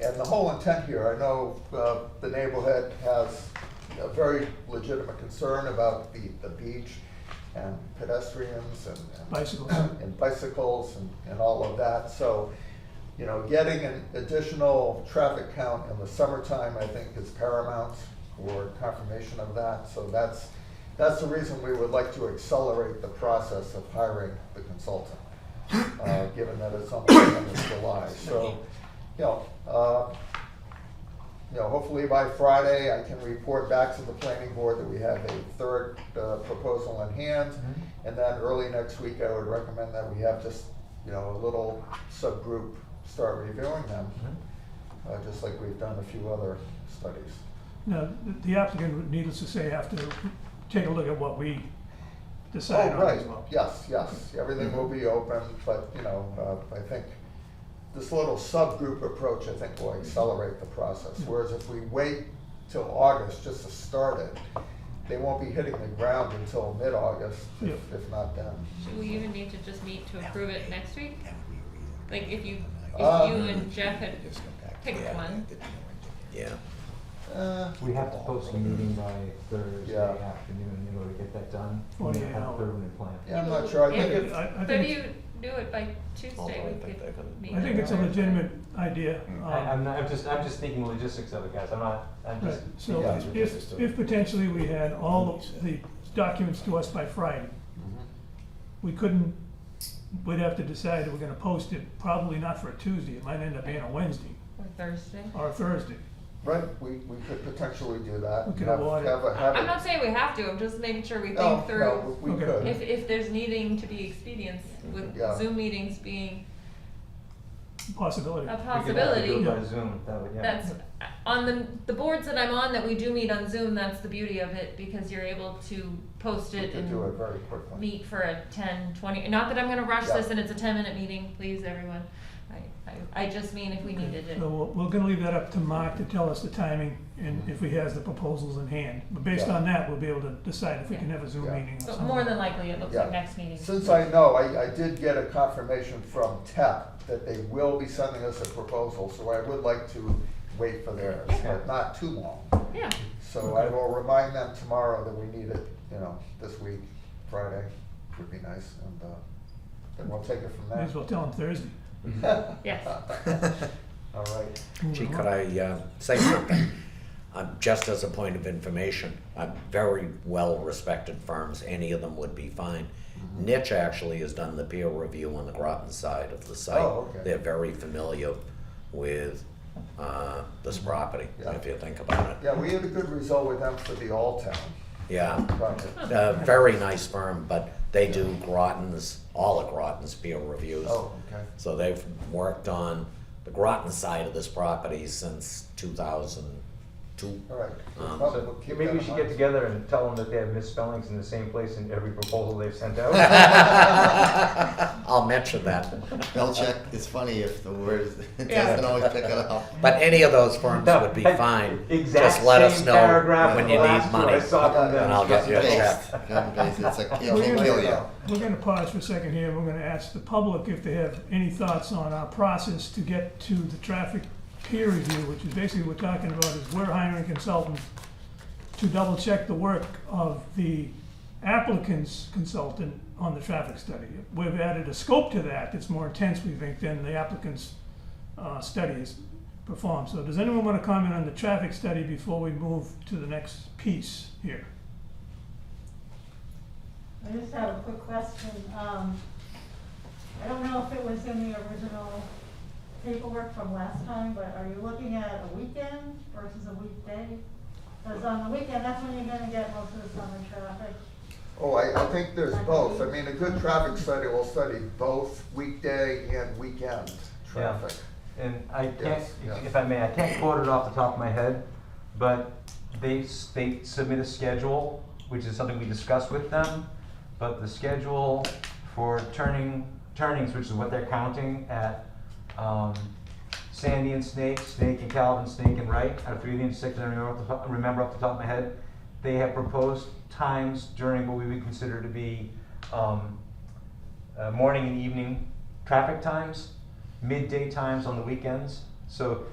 And the whole intent here, I know uh, the neighborhood has a very legitimate concern about the, the beach and pedestrians and. and- Bicycles. And bicycles and, and all of that, so, you know, getting an additional traffic count in the summertime, I think, is paramount for confirmation of that, so that's, that's the reason we would like to accelerate the process of hiring the consultant, uh, given that it's almost the end of July, so, you know, uh, you know, hopefully by Friday, I can report back to the planning board that we have a third uh, proposal in hand. And then early next week, I would recommend that we have just, you know, a little subgroup start reviewing them, uh, just like we've done a few other studies. Now, th- the applicant, would, needless to say, have to take a look at what we decide Oh, on right, as well. Mm-hmm. yes, yes, everything will be open, but, you know, uh, I think this little subgroup approach, I think, will accelerate the process. Mm-hmm. Whereas if we wait till August just to start it, they won't be hitting the ground until mid-August, if Yeah. if not then. Should we even need to just meet to approve it next week? Like if you, if Uh, you and Jeff had picked one, Yeah. Uh, We have to post a meeting by Thursday Yeah. afternoon in order to get that done. and then 48 have hours. Thursday plan. Yeah, I'm not sure, I think it's, I, I but if think, you do it by Although I Tuesday, we think they're could gonna- meet. I think it's a on Thursday. legitimate idea. Mm, I, um, I'm not, I'm just, I'm just thinking logistics of it, guys, I'm not, I'm Right, just. so Yeah. if, if potentially we had all Mm-hmm. of the documents to us by Friday, we couldn't, we'd have to decide that we're gonna post it, probably not for a Tuesday, it might end up being a Wednesday Or Thursday. or a Thursday. right, we, we could potentially do that. We could Have- avoid it. Have a, have a. I'm not saying we have to, I'm just making sure we Uh, No, think no, through we Okay. could. if, if there's needing to be expedience with Yeah. Zoom meetings being Possibility. a We could have to possibility. do it by Zoom, that would, yeah. That's, on the, the boards that I'm on that we do meet on Zoom, that's the beauty of it because you're able to post We it could do it and very quickly. meet for a 10, 20, not that I'm gonna rush Yeah. this and it's a 10-minute meeting, please, everyone. I, I, I just mean if we needed it. So we're, we're gonna leave that up to Mark to tell us the timing and if he has the proposals in hand. But based Yeah. on that, we'll be able to decide if we can have a Zoom Yeah. meeting or But something. more than likely, it looks like Yeah. next meeting. Since I know, I, I did get a confirmation from TEP that they will be sending us a proposal, so I would like to wait for theirs, but not too long. Yeah, So I will remind them tomorrow that we need it, you know, this week, Friday would be nice, and, uh, then we'll take it from May as there. well tell him Thursday. yes. All right, Move it Gee, could along. I uh, say something? Um, Just as a point of information, uh, very well-respected firms, any of them would be fine. Mm-hmm. Niche actually has done the peer review on the Groton side of the site. Oh, okay. They're very familiar with uh, this property, Mm-hmm. Yeah. if you think about it. yeah, we had a good result with them for the All Town Yeah, project. a very nice firm, but they do Groton's, all of Groton's peer reviews. Oh, okay, So they've worked on the Groton side of this property since 2002. all right. We'll Um, probably So keep maybe that we in should mind. get together and tell them that they have misspellings in the same place in every proposal they've sent out. I'll mention that. Spell check is funny if the words it Yeah. doesn't always pick it up. But any of those firms No, would be I- fine. Exact Just let us same know paragraph when in you the need last one money, I saw from and them. And I'll get you a check. Paste, cut and paste. It's like it We're can gonna- kill you. We're gonna pause for a second here, we're gonna ask the public if they have any thoughts on our process to get to the traffic peer review, which is basically what we're talking about, is we're hiring consultants to double check the work of the applicant's consultant on the traffic study. We've added a scope to that that's more intense, we think, than the applicant's, uh, study is performed. So does anyone wanna comment on the traffic study before we move to the next piece here? I just have a quick question. Um, I don't know if it was in the original paperwork from last time, but are you looking at a weekend versus a weekday? Because on the weekend, that's when you're gonna get most of the summer traffic. Oh, I, I think there's both. I mean, a good traffic study will study both weekday and weekend traffic. And I can't, Yes, yeah. if I may, I can't quote it off the top of my head, but they, s- they submit a schedule, which is something we discuss with them. But the schedule for turning, turnings, which is what they're counting at, um, Sandy and Snake, Snake and Calvin, Snake and Wright, out of three of the intersections, I remember off the top, remember off the top of my head. They have proposed times during what we would consider to be, um, uh, morning and evening traffic times, midday times on the weekends. So